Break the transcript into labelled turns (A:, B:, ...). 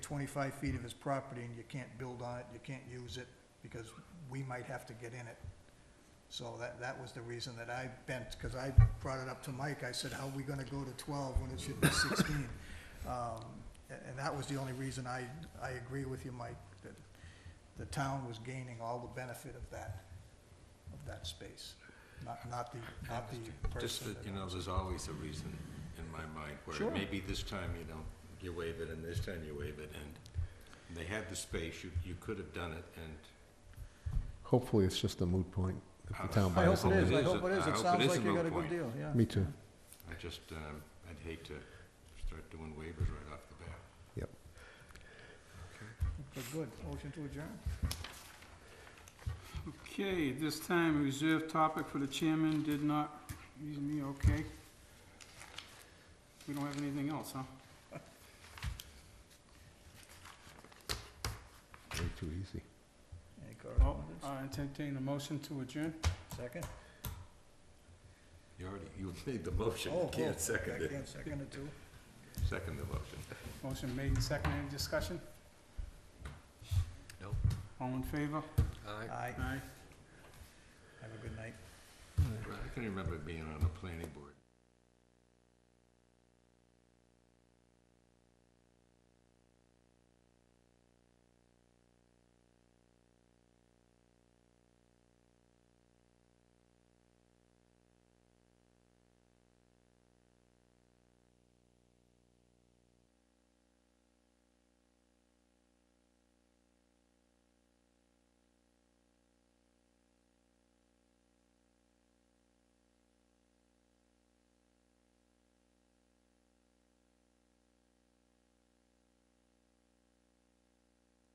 A: twenty-five feet of his property and you can't build on it, you can't use it, because we might have to get in it. So that, that was the reason that I bent, because I brought it up to Mike, I said, how are we gonna go to twelve when it should be sixteen? Um, a- and that was the only reason I, I agree with you, Mike, that the town was gaining all the benefit of that, of that space, not, not the, not the
B: Just
A: person
B: that,
A: that
B: you know, there's always a reason in my mind where
A: Sure.
B: maybe this time you don't, you waive it and this time you waive it and they had the space, you, you could have done it and.
C: Hopefully, it's just a moot point if the town
A: I
C: buys
A: hope it is,
C: it.
A: I
B: is a-
A: hope it is,
B: I hope
A: it
B: it
A: sounds
B: is
A: like
B: a
A: you
B: moot
A: got a good
B: point.
A: deal, yeah.
C: Me too.
B: I just, um, I'd hate to start doing waivers right off the bat.
A: But good, motion to adjourn.
D: Okay, this time, a reserved topic for the chairman did not, he's me, okay. We don't have anything else, huh?
C: Way too easy.
A: Any
D: Oh,
A: correspondence?
D: I entertain a motion to adjourn.
A: Second?
B: You already, you made the motion,
A: Oh,
B: you
A: oh,
B: can't second
A: I
B: it.
A: can't second it too.
B: Second the motion.
D: Motion made and seconded, any discussion?
B: No.
D: All in favor?
A: Aye,
D: Aye.
A: have a good night.
B: I can remember being on the planning board.